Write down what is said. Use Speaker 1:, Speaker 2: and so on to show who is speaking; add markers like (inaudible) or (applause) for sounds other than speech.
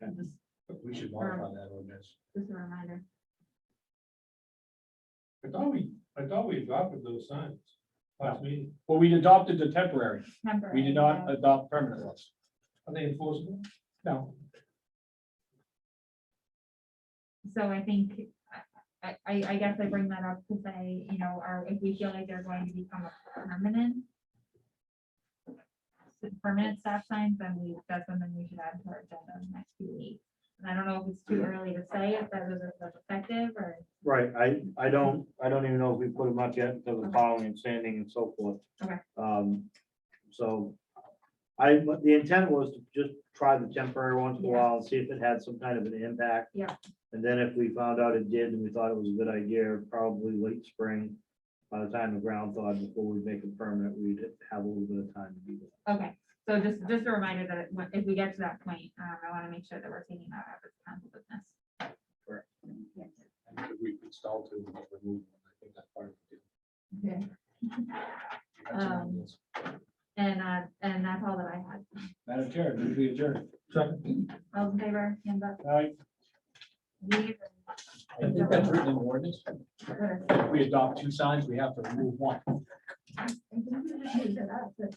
Speaker 1: But we should modify that ordinance.
Speaker 2: Just a reminder.
Speaker 1: I thought we, I thought we adopted those signs last meeting.
Speaker 3: Well, we adopted the temporary. We
Speaker 2: Temporary,
Speaker 3: did not
Speaker 2: yeah.
Speaker 3: adopt permanent ones.
Speaker 1: Are they enforceable?
Speaker 3: No.
Speaker 2: So I think, I- I, I, I guess I bring that up to say, you know, are, if we feel like they're going to become a permanent. Permanent stop signs, then we, that's something we should add to our agenda in the next few weeks. And I don't know if it's too early to say if that was that's effective or,
Speaker 4: Right, I, I don't, I don't even know if we put them up yet because of
Speaker 2: Mm-hmm. Okay.
Speaker 4: plowing and sanding and so forth.
Speaker 2: Okay.
Speaker 4: Um, so I, but the intent was to just try the temporary once in a
Speaker 2: Yeah.
Speaker 4: while and see if it had some kind of an impact.
Speaker 2: Yeah.
Speaker 4: And then if we found out it did and we thought it was a good idea, probably late spring, by the time the ground thawed, before we make it permanent, we'd have a little bit of time to do that.
Speaker 2: okay. So just, just a reminder that when- if we get to that point, um, I want to make sure that we're taking that up as council business.
Speaker 1: And if we installed them, we removed them. I think that's part of the deal.
Speaker 2: Okay.
Speaker 1: That's an
Speaker 2: Um,
Speaker 1: ordinance.
Speaker 2: And, uh, and that's all that I had.
Speaker 3: Madam Chair, move we adjourn.
Speaker 2: All in favor, hands up.
Speaker 3: All right,
Speaker 2: Leave.
Speaker 3: I think that's written in the ordinance.
Speaker 2: Good.
Speaker 3: If we adopt two signs, we have to remove one.
Speaker 2: (laughs) I think we should leave it up, but-